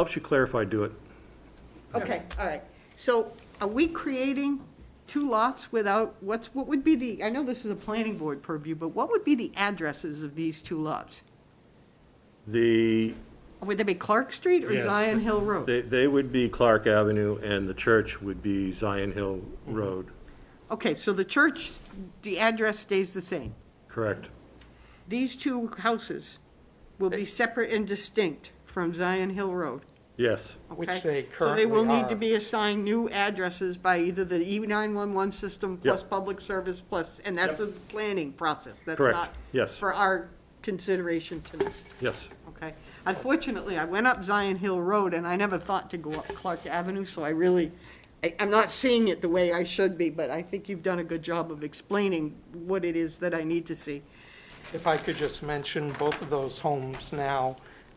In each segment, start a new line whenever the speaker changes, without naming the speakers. Helps you clarify, do it.
Okay, all right. So are we creating two lots without, what's, what would be the, I know this is a planning board purview, but what would be the addresses of these two lots?
The,
Would they be Clark Street or
Yes.
Zion Hill Road?
they, they would be Clark Avenue and the church would be Zion Hill
Mm-hmm.
Road,
Okay, so the church, the address stays the same.
correct?
These two houses will be separate and distinct from Zion Hill Road,
Yes,
okay?
Which they
So they will
currently
need to
are.
be assigned new addresses by either the E E911 system plus public service plus, and that's a planning process. That's
Correct.
not
Yes.
For our consideration tonight,
yes.
okay? Unfortunately, I went up Zion Hill Road and I never thought to go up Clark Avenue, so I really, I- I'm not seeing it the way I should be, but I think you've done a good job of explaining what it is that I need to see.
If I could just mention, both of those homes now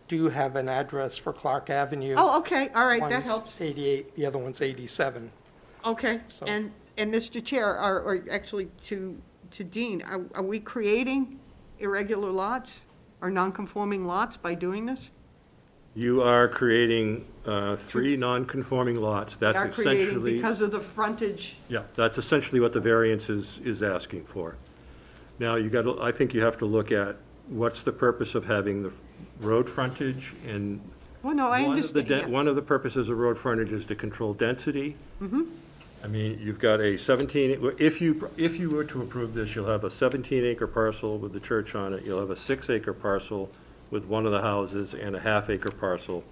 do have an address for Clark Avenue.
Oh, okay, all right, that
One's
helps.
88, the other one's 87.
Okay,
So-
and, and Mr. Chair, or, or actually to, to Dean, are, are we creating irregular lots or non-conforming lots by doing this?
You are creating, uh, three non-conforming lots.
We
That's
Are creating
essentially.
because of the frontage,
Yeah, that's essentially what the variance is, is asking for. Now, you got, I think you have to look at what's the purpose of having the road frontage and.
well, no, Oh,
one
I
of the
understand,
den-
yeah.
One of the purposes of road frontage is to control density.
Mm-hmm.
I mean, you've got a 17, if you, if you were to approve this, you'll have a 17 acre parcel with the church on it, you'll have a six acre parcel with one of the houses and a half acre parcel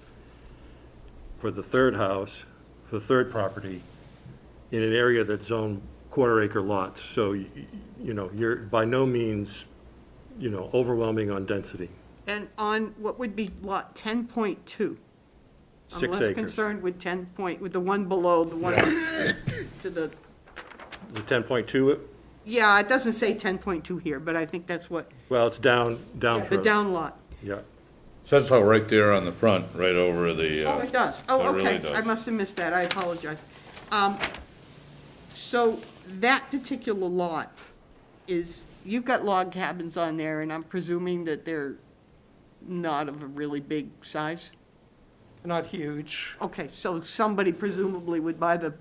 for the third house, for the third property, in an area that's zoned quarter acre lots. So, y- y- you know, you're by no means, you know, overwhelming on density,
And on what would be lot ten point two?
six
I'm less
acres.
concerned with ten point, with the one below, the one to the,
The 10.2,
yeah, it doesn't say ten point two here, but I think that's what,
well, it's down, down
the
further.
down lot.
Yeah,
Says so right there on the front, right over the,
Oh,
uh,
it does. Oh,
It really
okay. I
does.
must have missed that. I apologize. Um, So that particular lot is, you've got log cabins on there, and I'm presuming that they're not of a really big size?
Not huge.
Okay, so somebody presumably would buy the,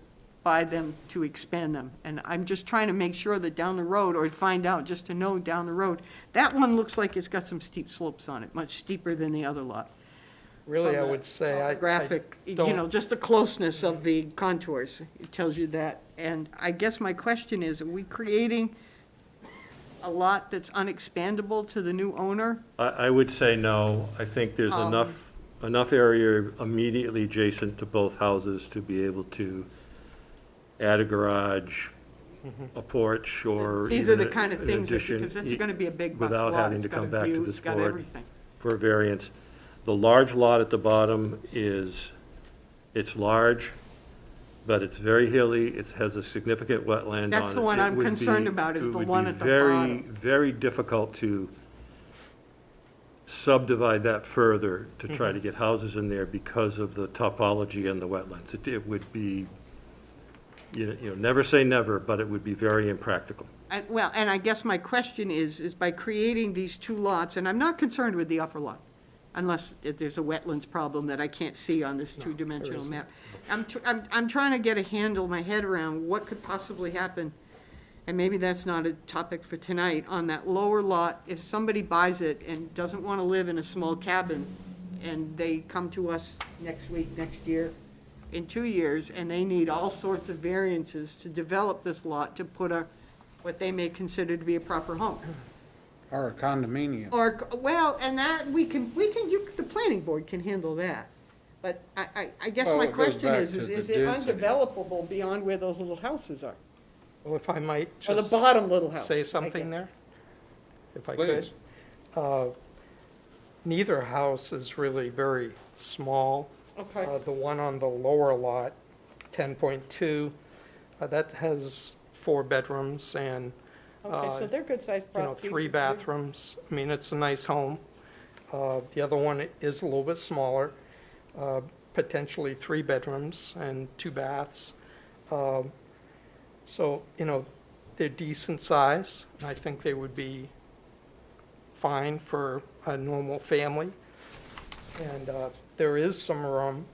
buy them to expand them. And I'm just trying to make sure that down the road, or find out, just to know down the road, that one looks like it's got some steep slopes on it, much steeper than the other lot.
Really, I
from the
would say I. I
Graphic, you
don't-
know, just the closeness of the contours, it tells you that. And I guess my question is, are we creating a lot that's unexpandable to the new owner?
I, I would say no. I think there's
Um,
enough, enough area immediately adjacent to both houses to be able to add a garage, a porch, or
These are
even
the
a-
kind of
an
things, that-
addition
because it's
e-
gonna be a big box
without
lot,
having
it's
to
got
come
a
back to
view,
this
it's got
board.
everything.
for a variance. The large lot at the bottom is, it's large, but it's very hilly, it has a significant wetland on it.
That's the one
It
I'm
would be-
concerned about is
it
the
would
one
be
at the
very,
bottom.
very difficult to subdivide that further to try to get houses in there because of the topology and the wetlands. It- It would be, you know- you know, never say never, but it would be very impractical.
And, well, and I guess my question is, is by creating these two lots, and I'm not concerned with the upper lot, unless if there's a wetlands problem that I can't see on this two-dimensional
isn't.
map. I'm, tr- I'm, I'm trying to get a handle, my head around what could possibly happen, and maybe that's not a topic for tonight, on that lower lot, if somebody buys it and doesn't want to live in a small cabin, and they come to us next week, next year, in two years, and they need all sorts of variances to develop this lot to put a, what they may consider to be a proper home.
Or a condominium.
Or, well, and that, we can, we can, you, the planning board can handle that. But I, I, I guess
Well,
my
it goes
question
back
is,
to
is
the
is it
density.
undevelopable beyond where those little houses are?
Well, if I might
Or
just.
the bottom little house? I
say something
guess.
there? If I could?
Please.
Uh, Neither house is really very small.
Okay.
Uh, The one on the lower lot, 10.2, uh, that has four bedrooms and,
Okay, so
uh,
they're good-sized
you know,
properties.
three bathrooms. I mean, it's a nice home. Uh, The other one is a little bit smaller, uh, potentially three bedrooms and two baths. Um, So, you know, they're decent size, and I think they would be fine for a normal family. And uh, there is some room